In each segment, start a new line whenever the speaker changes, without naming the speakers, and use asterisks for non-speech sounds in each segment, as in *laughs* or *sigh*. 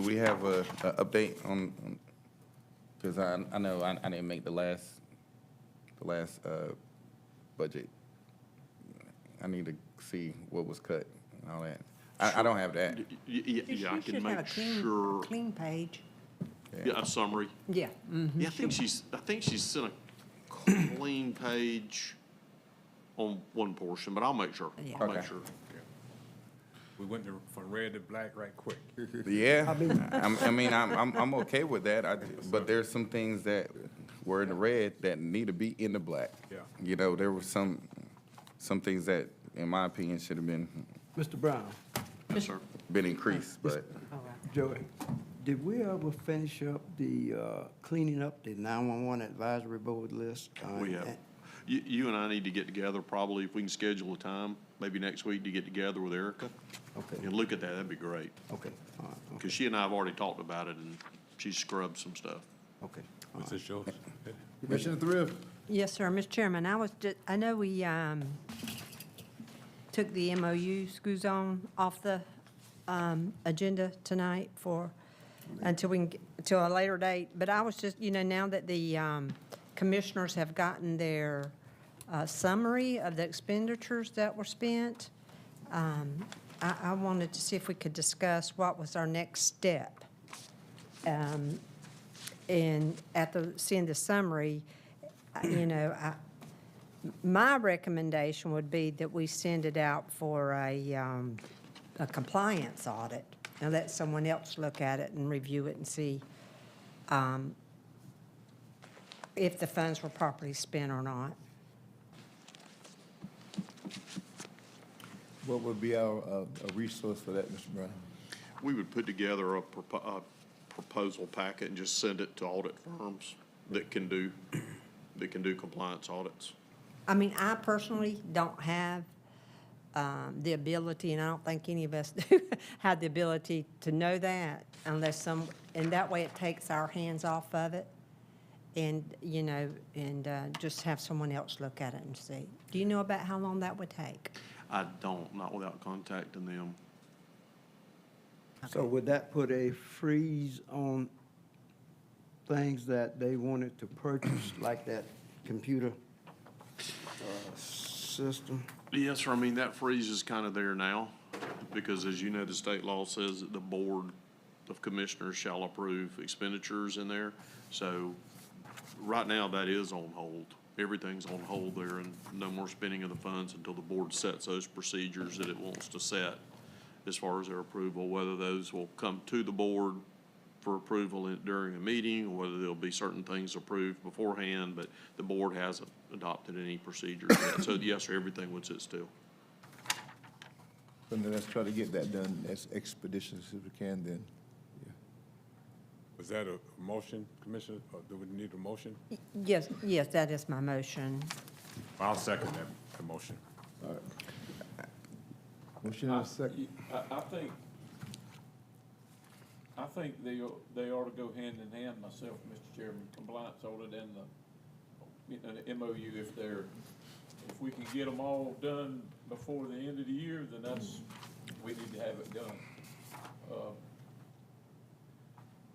Do we have a, a update on, on- cause I, I know I, I didn't make the last, the last, uh, budget. I need to see what was cut and all that. I, I don't have that.
Y- y- y-
You
Yeah, I can
should- should have
make
a clean-
sure,
Clean page,
yeah, mm-hmm. a summary.
yeah. mhm.
Yeah, I think she's, I think she's sent a
*coughs*
clean page on one portion, but I'll make sure.
Yeah.
I'll make
Okay.
sure.
We went to- from red to black right *laughs* quick.
Yeah, I'm, I mean, I'm, I'm, I'm okay with that, I, but there's some things that were in the red that need to be in the black.
Yeah.
You know, there were some, some things that, in my opinion, should have been,
Mr. Brown,
Yes, sir.
been increased, but
All right.
Joey, did we ever finish up the uh, cleaning up the 911 advisory board list? Uh,
We have,
and-
you, you and I need to get together probably if we can schedule a time, maybe next week to get together with Erica
Okay,
and look at that. That'd be great.
okay, all right, okay,
Because she and I have already talked about it and she scrubbed some stuff.
uh, okay. all
What's
right.
this, yours?
Commissioner Thrift,
Yes, sir, Mr. Chairman, I was, ju- I know we um, took the MOU school zone off the um, agenda tonight for, until we can, get- till a later date, but I was just, you know, now that the um, commissioners have gotten their uh, summary of the expenditures that were spent, um, I, I wanted to see if we could discuss what was our next step. Um, And at the, seeing the summary, I- you know, I, my recommendation would be that we send it out for a, um, a compliance audit and let someone else look at it and review it and see, um, if the funds were properly spent or not.
what would be our, uh, a resource for that, Mr. Brown?
We would put together a propo- a proposal packet and just send it to audit firms that can do, that can do compliance audits.
I mean, I personally don't have um, the ability, and I don't think any of us *laughs* do, have the ability to know that unless some, and that way it takes our hands off of it. And, you know, and uh, just have someone else look at it and see. Do you know about how long that would take?
I don't, not without contacting them.
So would that put a freeze on things that they wanted to purchase, like that computer uh, system?
Yes, sir, I mean, that freeze is kind of there now, because as you know, the state law says that the Board of Commissioners shall approve expenditures in there. So right now, that is on hold. Everything's on hold there, and no more spending of the funds until the board sets those procedures that it wants to set as far as their approval, whether those will come to the board for approval in- during a meeting, or whether there'll be certain things approved beforehand, but the board hasn't adopted any procedures yet. So yes, sir, everything would sit still.
Then let's try to get that done as expeditiously as we can then.
Was that a motion, Commissioner? Or do we need a motion?
Yes, yes, that is my motion.
I'll second that, the motion.
Motion
Uh,
and a second.
I, I think, I think they, o- they ought to go hand in hand myself, Mr. Chairman, compliance audit and the, you know, the MOU if they're, if we can get them all done before the end of the year, then that's, we need to have it done. Uh,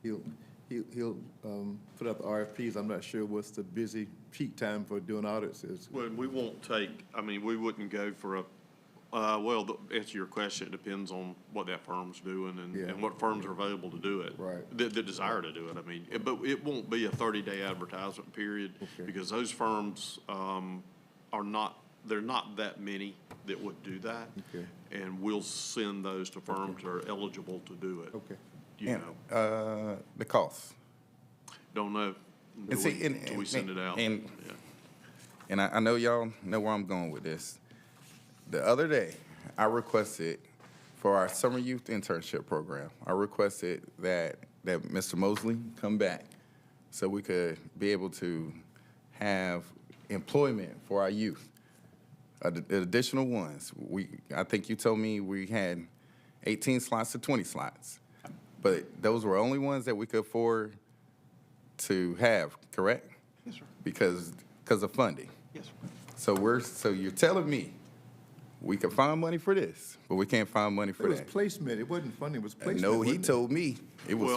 He'll, he'll, he'll, um, put out the RFPs. I'm not sure what's the busy peak time for doing audits is.
Well, and we won't take, I mean, we wouldn't go for a, uh, well, to answer your question, it depends on what that firm's doing and,
Yeah.
and what firms are available to do it.
Right.
The, the desire to do it, I mean, it- but it won't be a thirty-day advertisement period
Okay.
because those firms, um, are not, they're not that many that would do that.
Okay.
And we'll send those to firms that are eligible to do it.
Okay.
You know,
And, uh, the cost.
don't know until
see,
we,
and-
until we
and-
send it out.
and-
Yeah.
And I, I know y'all know where I'm going with this. The other day, I requested for our summer youth internship program, I requested that, that Mr. Mosley come back so we could be able to have employment for our youth. Ad- Additional ones, we, I think you told me we had 18 slots to 20 slots. But those were only ones that we could afford to have, correct? Yes, sir. Because, because of funding.
Yes, sir.
So we're, so you're telling me we could find money for this, but we can't find money
It
for
was
that.
placement. It wasn't funding, it was
And
placement.
no, he
wasn't it?
told me it was